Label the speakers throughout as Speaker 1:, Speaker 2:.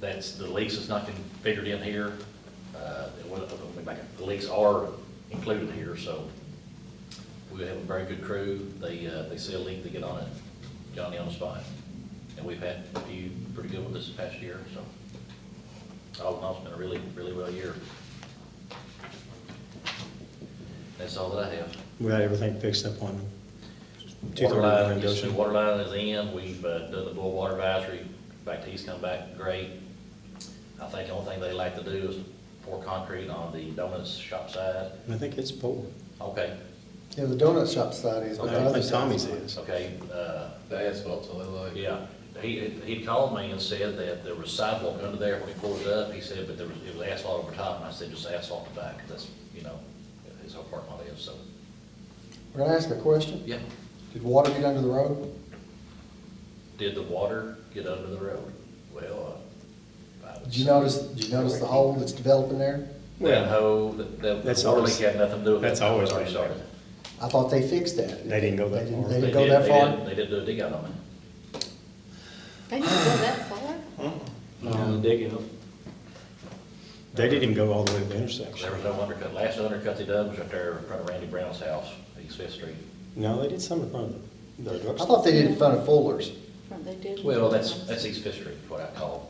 Speaker 1: that's, the lease is not configured in here. Uh, it wasn't- let me back up. The leaks are included here, so we have a very good crew. They, uh, they see a leak, they get on it, Johnny on the spot. And we've had a few pretty good ones this past year, so all in all, it's been a really, really well year. That's all that I have.
Speaker 2: We got everything fixed up on two
Speaker 1: Water line,
Speaker 2: thirty-nine
Speaker 1: yes, the
Speaker 2: Goshen.
Speaker 1: water line is in, we've uh, done the boil water advisory, Baptiste come back great. I think the only thing they like to do is pour concrete on the donuts shop side.
Speaker 2: I think it's poured.
Speaker 1: Okay,
Speaker 3: Yeah, the donut shop side is,
Speaker 2: I
Speaker 3: but the
Speaker 2: don't
Speaker 3: other
Speaker 2: think Tommy's
Speaker 3: side's not.
Speaker 2: is.
Speaker 1: okay, uh,
Speaker 4: The asphalt, so they like.
Speaker 1: yeah. He, he called me and said that there was sidewalk under there when he pulled it up, he said, but there was, it was asphalt over top, and I said, just asphalt the back, that's, you know, his whole parking lot is, so,
Speaker 3: Can I ask a question?
Speaker 1: yeah.
Speaker 3: Did water get under the road?
Speaker 1: Did the water get under the road? Well, uh, I would
Speaker 3: Did you
Speaker 1: say-
Speaker 3: notice, did you notice the hole that's developing there?
Speaker 1: That hoe, that, that
Speaker 2: That's
Speaker 1: the water
Speaker 2: always-
Speaker 1: leak had nothing to do with it.
Speaker 2: that's always
Speaker 1: Already
Speaker 2: been there.
Speaker 1: started.
Speaker 3: I thought they fixed that.
Speaker 2: They didn't go that
Speaker 3: They didn't-
Speaker 2: far.
Speaker 3: They didn't
Speaker 1: They
Speaker 3: go
Speaker 1: did-
Speaker 3: that
Speaker 1: they
Speaker 3: far?
Speaker 1: did- They did do a dig out on it.
Speaker 5: They didn't go that far.
Speaker 6: No, digging up.
Speaker 2: They didn't even go all the way to the
Speaker 1: There
Speaker 2: intersection.
Speaker 1: was no undercut. Last undercut they done was right there in front of Randy Brown's house, East Fifth Street.
Speaker 2: No, they did some in front of the- the
Speaker 3: I thought
Speaker 2: drugstore.
Speaker 3: they did it in front of Fuller's.
Speaker 5: They did.
Speaker 1: Well, that's, that's East Fifth Street, what I call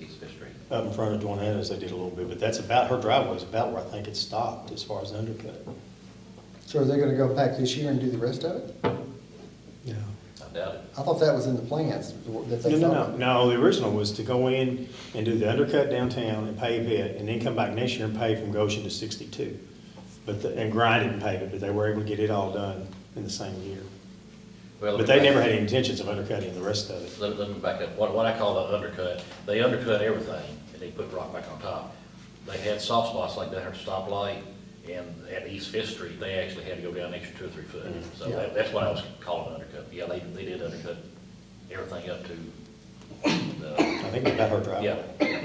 Speaker 1: East Fifth Street.
Speaker 2: Up in front of Dwanana's, they did a little bit, but that's about, her driveway's about where I think it stopped as far as the undercut.
Speaker 3: So are they gonna go back this year and do the rest of it?
Speaker 2: Yeah.
Speaker 1: I doubt it.
Speaker 3: I thought that was in the plans that
Speaker 2: No,
Speaker 3: they
Speaker 2: no, no,
Speaker 3: thought.
Speaker 2: no, the original was to go in and do the undercut downtown and pave it, and then come back next year and pave from Goshen to sixty-two. But, the- and grind it and pave it, but they were able to get it all done in the same year.
Speaker 1: Well,
Speaker 2: But they never had any intentions of undercutting the rest of it.
Speaker 1: Let, let me back up. What, what I call the undercut, they undercut everything and they put rock back on top. They had soft spots like down here at stoplight and at East Fifth Street, they actually had to go down an extra two or three foot. So
Speaker 3: Mm-hmm. Yeah.
Speaker 1: that, that's what I was calling an undercut. Yeah, they, they did undercut everything up to the,
Speaker 2: I think about her driveway.
Speaker 1: yeah.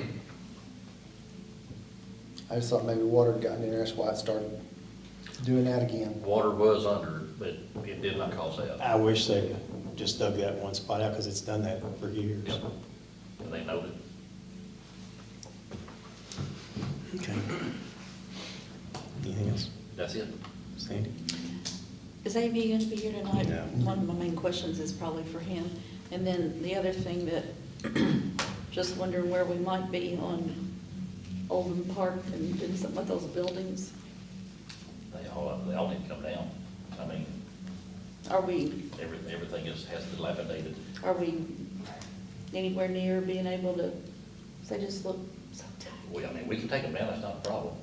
Speaker 3: I just thought maybe water had gotten in there, that's why it started doing that again.
Speaker 1: Water was under, but it did not cause that.
Speaker 2: I wish they just dug that one spot out, because it's done that for years.
Speaker 1: Yep. And they noted.
Speaker 2: Okay. Anything else,
Speaker 1: That's it.
Speaker 2: Sandy?
Speaker 5: Is Amy gonna be here tonight?
Speaker 2: No.
Speaker 5: One of my main questions is probably for him. And then the other thing that, just wondering where we might be on Oldham Park and doing something with those buildings.
Speaker 1: They all, they all need to come down. I mean,
Speaker 5: Are we,
Speaker 1: every, everything is, has dilapidated.
Speaker 5: are we anywhere near being able to, they just look so tight.
Speaker 1: We, I mean, we can take them down, that's not a problem.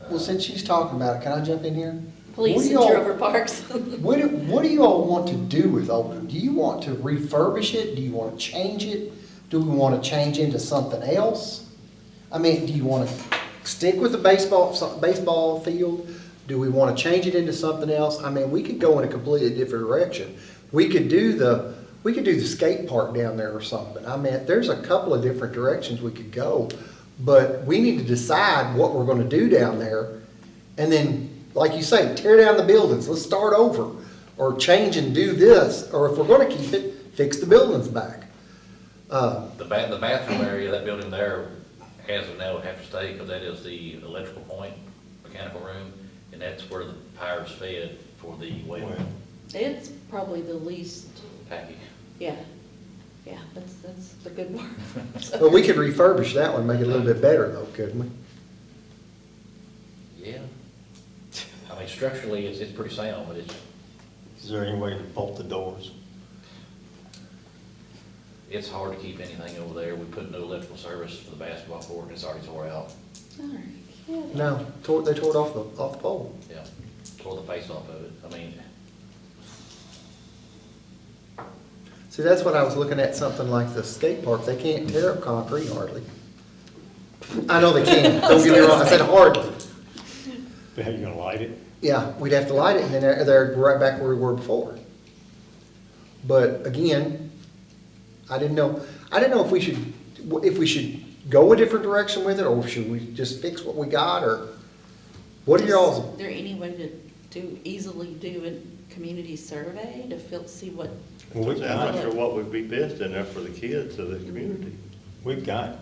Speaker 1: Uh,
Speaker 3: Well, since she's talking about it, can I jump in here? What
Speaker 5: Please,
Speaker 3: do
Speaker 5: since you're
Speaker 3: y'all-
Speaker 5: over parks.
Speaker 3: What, do- what do you all want to do with Oldham? Do you want to refurbish it? Do you want to change it? Do we want to change into something else? I mean, do you want to stick with the baseball, so- baseball field? Do we want to change it into something else? I mean, we could go in a completely different direction. We could do the, we could do the skate park down there or something. I mean, there's a couple of different directions we could go. But we need to decide what we're going to do down there and then, like you say, tear down the buildings, let's start over, or change and do this, or if we're gonna keep it, fix the buildings back. Uh,
Speaker 1: The ba, the bathroom area, that building there, as of now, would have to stay, because that is the electrical point, mechanical room, and that's where the power's fed for the well
Speaker 2: Well.
Speaker 5: It's probably the least,
Speaker 1: package.
Speaker 5: yeah, yeah, that's, that's the good word.
Speaker 3: But we could refurbish that one, make it a little bit better though, couldn't we?
Speaker 1: Yeah. I mean, structurally, it's, it's pretty sound, but it's,
Speaker 2: Is there any way to bolt the doors?
Speaker 1: it's hard to keep anything over there. We put no electrical service for the basketball court, and it's already tore out,
Speaker 5: All right, yeah.
Speaker 3: No, tore, they tore it off the, off the pole.
Speaker 1: yeah. Tore the face off of it. I mean,
Speaker 3: See, that's what I was looking at, something like the skate park, they can't tear up concrete hardly. I know they can, don't get me wrong, I said hardly.
Speaker 2: But how you gonna light it?
Speaker 3: Yeah, we'd have to light it, and then they're, they're right back where we were before. But again, I didn't know, I didn't know if we should, if we should go a different direction with it, or should we just fix what we got, or what are y'all's?
Speaker 5: Is there any way to do, easily do a community survey to feel, see what,
Speaker 2: Well, we've
Speaker 7: I'm not
Speaker 2: got,
Speaker 7: sure what would be best in there for the kids of the community.
Speaker 2: we've got